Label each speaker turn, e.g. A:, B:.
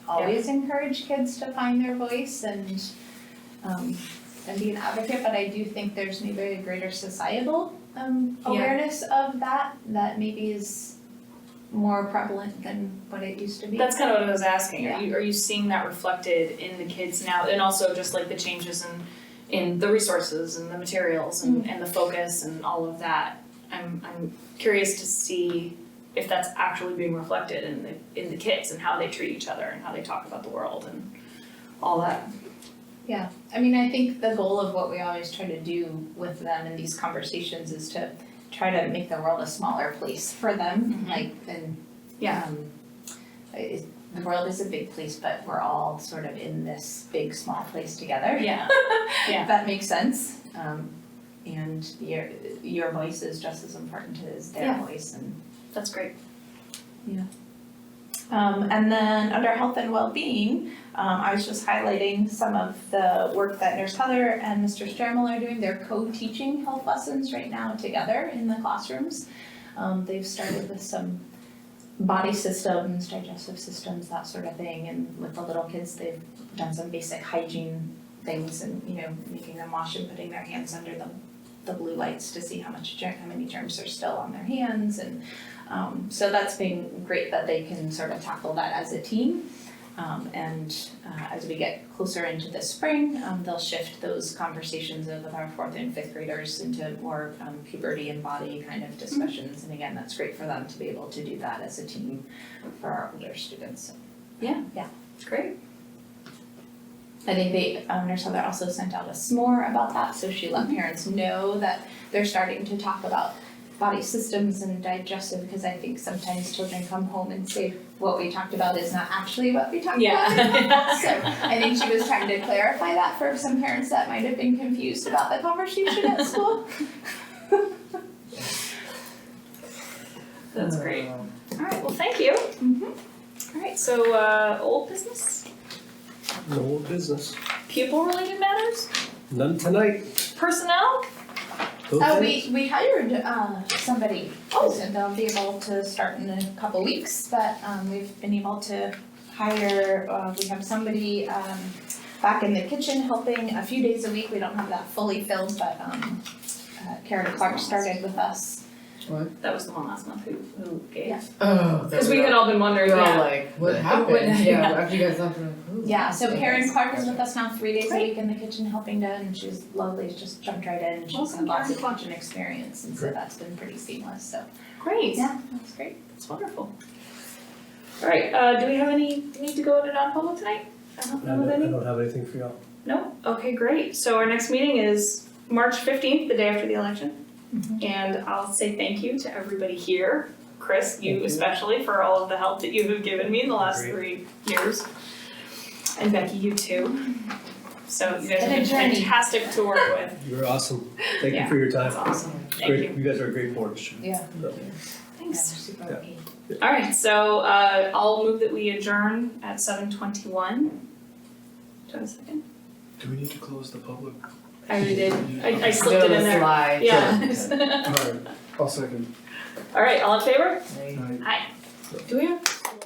A: always encourage kids to find their voice and um and be an advocate, but I do think there's maybe a greater societal um
B: Yeah.
A: awareness of that that maybe is more prevalent than what it used to be.
B: That's kind of what I was asking, are you, are you seeing that reflected in the kids now, and also just like the changes in, in the resources and the materials and, and the focus and all of that? I'm, I'm curious to see if that's actually being reflected in the, in the kids and how they treat each other and how they talk about the world and all that.
A: I mean, I think the goal of what we always try to do with them in these conversations is to try to make the world a smaller place for them,
B: Mhm.
A: like, and
B: Yeah.
A: um, it- the world is a big place, but we're all sort of in this big, small place together.
B: Yeah, Yeah.
A: If that makes sense, um, and your, your voice is just as important as their
B: Yeah.
A: voice and
B: that's great.
A: um, and then under health and well-being, um, I was just highlighting some of the work that Nurse Heather and Mr. Strammel are doing. They're co-teaching health lessons right now together in the classrooms. Um, they've started with some body systems, digestive systems, that sort of thing, and with the little kids, they've done some basic hygiene things and, you know, making them wash and putting their hands under the, the blue lights to see how much, germ- how many germs are still on their hands and um, so that's been great that they can sort of tackle that as a team. Um, and uh, as we get closer into the spring, um, they'll shift those conversations of with our fourth and fifth graders into more um, puberty and body kind of discussions. And again, that's great for them to be able to do that as a team for our older students. So
B: It's great.
A: I think they, um, Nurse Heather also sent out a s'more about that, so she let parents know that they're starting to talk about body systems and digestive, because I think sometimes children come home and say, what we talked about is not actually what we talked about. So I think she was trying to clarify that for some parents that might have been confused about the conversation at school.
B: That's great. Alright, well, thank you.
A: Mhm.
B: Alright, so, uh, old business,
C: No business.
B: pupil related matters,
C: None tonight.
B: personnel?
A: Oh, we, we hired, uh, somebody, oh, and they'll be able to start in a couple weeks, but, um, we've been able to hire, uh, we have somebody, um, back in the kitchen helping a few days a week, we don't have that fully filled, but, um, uh, Karen Clark started with us.
B: That was the one last month who, who gave.
A: Yeah.
D: Oh,
B: Because we had all been wondering,
D: We're all
B: yeah.
D: like, what
B: Like,
D: happened?
B: what-
D: yeah,
B: yeah.
D: after you guys left, we're like, "Ooh."
A: Yeah, so Karen Clark is with us now three days a
B: Great.
A: week in the kitchen helping to, and she's lovely, she's just jumped right in, she's
B: Welcome,
A: had lots
B: Karen
A: of kitchen experience, and so
C: Great.
A: that's been pretty seamless, so,
B: Great.
A: yeah, that's great.
B: That's wonderful. All right, uh, do we have any, need to go into non-public tonight? I don't
C: I
B: know of
C: don't, I
B: any.
C: don't have anything for y'all.
B: No? Okay, great. So our next meeting is March fifteenth, the day after the election.
A: Mhm.
B: And I'll say thank you to everybody here, Chris,
C: Thank
B: you
C: you.
B: especially, for all of the help that you have given me in the last three years. And Becky, you too. So you guys have
A: Been a
B: been
A: journey.
B: fantastic to work with.
C: You're awesome. Thank
B: Yeah.
C: you for your
B: That's
C: time.
B: awesome. Thank
C: great.
B: you.
C: guys are a great board.
A: Yeah.
C: So,
A: Yeah,
B: Thanks.
A: super
C: Yeah.
A: lucky.
B: All right, so uh, I'll move that we adjourn at seven twenty-one. Do I have a second?
E: Do we need to close the public?
B: I already did. I, I
D: Still
B: slipped it in
D: the
B: there.
D: slide.
B: Yeah.
E: Alright, I'll second.
B: All right, all in favor?
D: Like,
E: Aye.
B: Do we have